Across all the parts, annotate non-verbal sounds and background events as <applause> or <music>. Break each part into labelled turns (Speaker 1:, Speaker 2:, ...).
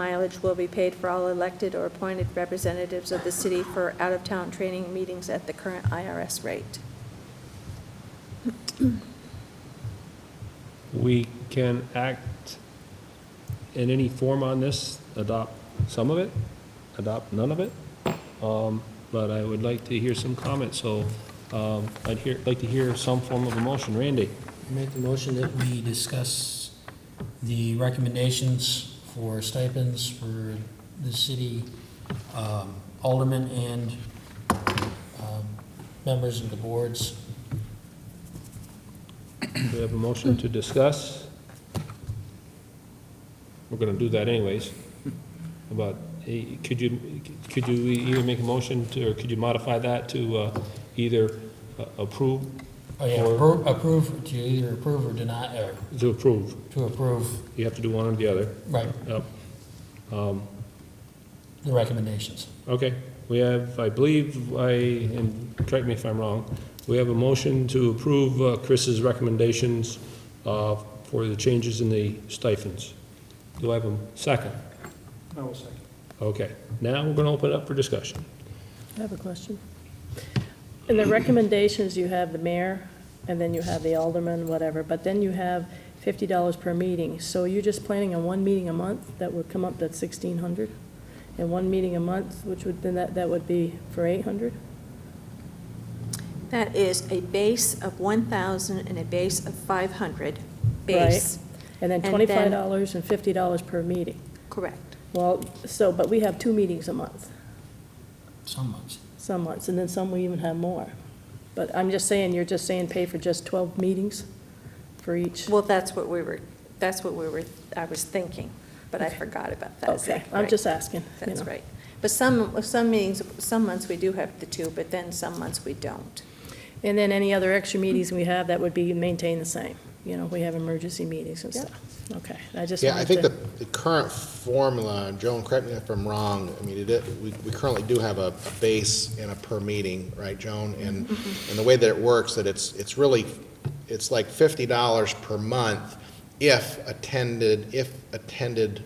Speaker 1: Mileage will be paid for all elected or appointed representatives of the city for out-of-town training meetings at the current IRS rate.
Speaker 2: We can act in any form on this, adopt some of it, adopt none of it. Um, But I would like to hear some comments, so um, I'd hear, like to hear some form of a motion. Randy?
Speaker 3: Make the motion that we discuss the recommendations for stipends for the city um, aldermen and um, members of the boards.
Speaker 2: We have a motion to discuss. We're gonna do that anyways. About, eh, could you, could you either make a motion to, or could you modify that to uh, either uh, approve,
Speaker 3: Oh, yeah,
Speaker 2: Or-
Speaker 3: appro- approve, to either approve or deny, or
Speaker 2: to approve?
Speaker 3: to approve,
Speaker 2: You have to do one or the other.
Speaker 3: right,
Speaker 2: Yep. Um,
Speaker 3: the recommendations.
Speaker 2: Okay, we have, I believe, I, and correct me if I'm wrong, we have a motion to approve uh, Chris's recommendations uh, for the changes in the stipends. Do I have a second?
Speaker 4: I will second.
Speaker 2: Okay, now we're going to open it up for discussion.
Speaker 5: I have a question. In the recommendations, you have the mayor, and then you have the alderman, whatever, but then you have fifty dollars per meeting. So you're just planning on one meeting a month, that would come up, that's sixteen hundred? And one meeting a month, which would, then that, that would be for eight hundred?
Speaker 1: That is a base of 1,000 and a base of 500. Base,
Speaker 5: And then
Speaker 1: And then-
Speaker 5: twenty-five dollars and fifty dollars per meeting.
Speaker 1: correct.
Speaker 5: Well, so, but we have two meetings a month,
Speaker 3: Some months.
Speaker 5: some months, and then some we even have more. But I'm just saying, you're just saying pay for just twelve meetings for each?
Speaker 1: Well, that's what we were, that's what we were, I was thinking, but I forgot about that.
Speaker 5: Okay,
Speaker 1: Exactly
Speaker 5: I'm
Speaker 1: right.
Speaker 5: just asking. you
Speaker 1: That's
Speaker 5: know.
Speaker 1: right. But some, some meetings, some months we do have the two, but then some months we don't.
Speaker 5: And then any other extra meetings we have, that would be maintained the same. You know, we have emergency meetings and
Speaker 1: Yep.
Speaker 5: stuff. Okay, I just
Speaker 6: Yeah, I
Speaker 5: wanted
Speaker 6: think the,
Speaker 5: to,
Speaker 6: the current formula, Joan, correct me if I'm wrong, I mean, it, is- we, we currently do have a, a base and a per meeting, right, Joan? And,
Speaker 5: Mm-hmm.
Speaker 6: and the way that it works, that it's, it's really, it's like fifty dollars per month if attended, if attended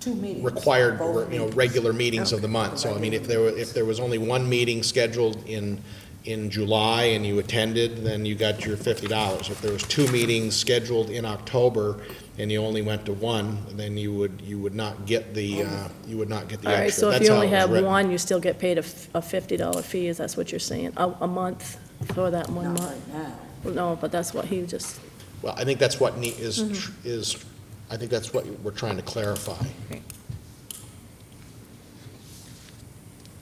Speaker 7: Two meetings.
Speaker 6: required,
Speaker 7: Both
Speaker 6: you know,
Speaker 7: meetings.
Speaker 6: regular meetings of the month. So I mean, if there were, if there was only one meeting scheduled in, in July and you attended, then you got your fifty dollars. If there was two meetings scheduled in October and you only went to one, then you would, you would not get the, uh, you would not get the
Speaker 5: all right,
Speaker 6: extra.
Speaker 5: so if
Speaker 6: That's
Speaker 5: you
Speaker 6: how
Speaker 5: only
Speaker 6: it was
Speaker 5: have
Speaker 6: written.
Speaker 5: one, you still get paid a f- a fifty dollar fee, is that's what you're saying? A, a month for that one
Speaker 7: Not
Speaker 5: month?
Speaker 7: right now.
Speaker 5: No, but that's what he just,
Speaker 6: Well, I think that's what ne- is, tr- is, I think that's what we're trying to clarify.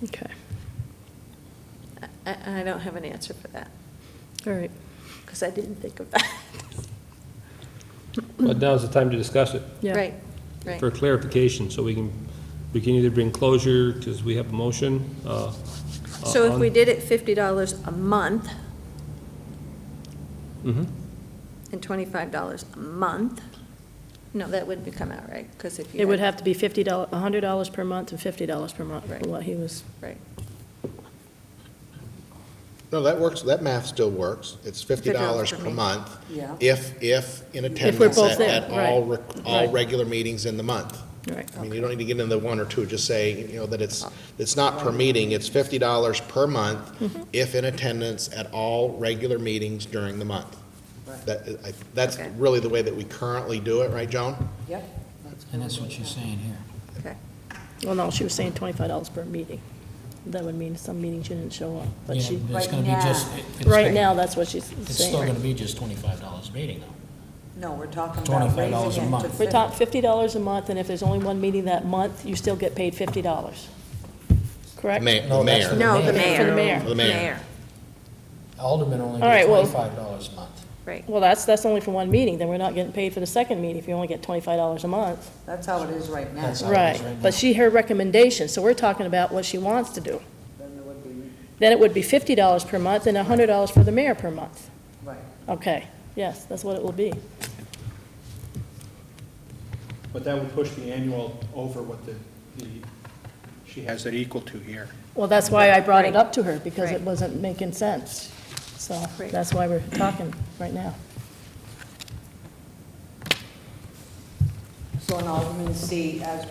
Speaker 5: okay,
Speaker 1: I, I don't have an answer for that,
Speaker 5: all right.
Speaker 1: because I didn't think of that.
Speaker 2: But now's the time to discuss it
Speaker 5: Yeah.
Speaker 1: <laughs> Right, right.
Speaker 2: for clarification, so we can, we can either bring closure, because we have a motion. uh,
Speaker 1: So if
Speaker 2: on-
Speaker 5: Uh,
Speaker 1: we did it fifty dollars a month
Speaker 5: Mm-hmm.
Speaker 2: Mhm.
Speaker 1: and twenty-five dollars a month, no, that wouldn't become out right, because if you.
Speaker 5: It would
Speaker 1: had-
Speaker 5: have to be fifty dollar, a hundred dollars per month and fifty dollars per month,
Speaker 1: Right.
Speaker 5: for what he was,
Speaker 1: Right,
Speaker 6: No, that works, that math still works. It's fifty
Speaker 1: $50
Speaker 6: dollars
Speaker 1: per
Speaker 6: per
Speaker 1: meeting.
Speaker 6: month
Speaker 7: Yeah.
Speaker 6: if, if in
Speaker 5: we're
Speaker 6: attendance at,
Speaker 5: both there,
Speaker 6: at all,
Speaker 5: right,
Speaker 6: rec- all
Speaker 5: right.
Speaker 6: regular meetings in the month.
Speaker 5: all right.
Speaker 6: I mean, you don't need to get into one or two, just say, you know, that it's, it's not per meeting, it's fifty dollars per month
Speaker 5: Mm-hmm.
Speaker 6: if in attendance at all regular meetings during the month.
Speaker 7: Right.
Speaker 6: That, I, that's
Speaker 1: Okay.
Speaker 6: really the way that we currently do it, right, Joan?
Speaker 7: Yep. That's
Speaker 3: And that's what
Speaker 7: correct.
Speaker 3: she's saying here.
Speaker 1: okay.
Speaker 5: Well, no, she was saying twenty-five dollars per meeting. That would mean some meetings you didn't show up, but
Speaker 3: Yeah,
Speaker 5: she,
Speaker 3: but It's
Speaker 7: Right
Speaker 3: gonna be just,
Speaker 7: now.
Speaker 3: it- it's-
Speaker 5: right now, that's what she's
Speaker 3: It's still
Speaker 5: saying.
Speaker 3: gonna be just twenty-five dollars a meeting, though.
Speaker 7: No, we're talking about raising
Speaker 3: $25 a
Speaker 7: it to
Speaker 3: month.
Speaker 5: We're
Speaker 7: fifty.
Speaker 5: talking fifty dollars a month, and if there's only one meeting that month, you still get paid fifty dollars. Correct?
Speaker 6: Ma-
Speaker 3: No,
Speaker 6: the
Speaker 3: that's
Speaker 6: mayor.
Speaker 3: the-
Speaker 1: No, the
Speaker 5: For the
Speaker 1: mayor.
Speaker 5: mayor.
Speaker 6: The mayor.
Speaker 3: Aldermen only
Speaker 5: All
Speaker 3: get
Speaker 5: right, well-
Speaker 3: twenty-five dollars a month.
Speaker 1: Right,
Speaker 5: Well, that's, that's only for one meeting, then we're not getting paid for the second meeting if you only get twenty-five dollars a month.
Speaker 7: That's how it is right now.
Speaker 3: Oh, That's how it is
Speaker 5: Right,
Speaker 3: right
Speaker 5: but
Speaker 3: now.
Speaker 5: she, her recommendation, so we're talking about what she wants to do.
Speaker 7: Then there would be,
Speaker 5: Then it would be fifty dollars per month and hundred dollars for the mayor per month.
Speaker 7: right.
Speaker 5: Okay, yes, that's what it will be.
Speaker 4: But that would push the annual over what the, the, she has it equal to here.
Speaker 5: Well, that's why I brought it
Speaker 1: Right.
Speaker 5: up to her, because it
Speaker 1: Right.
Speaker 5: wasn't making sense. So
Speaker 1: Right.
Speaker 5: that's why we're talking right now.
Speaker 7: So an Alderman C as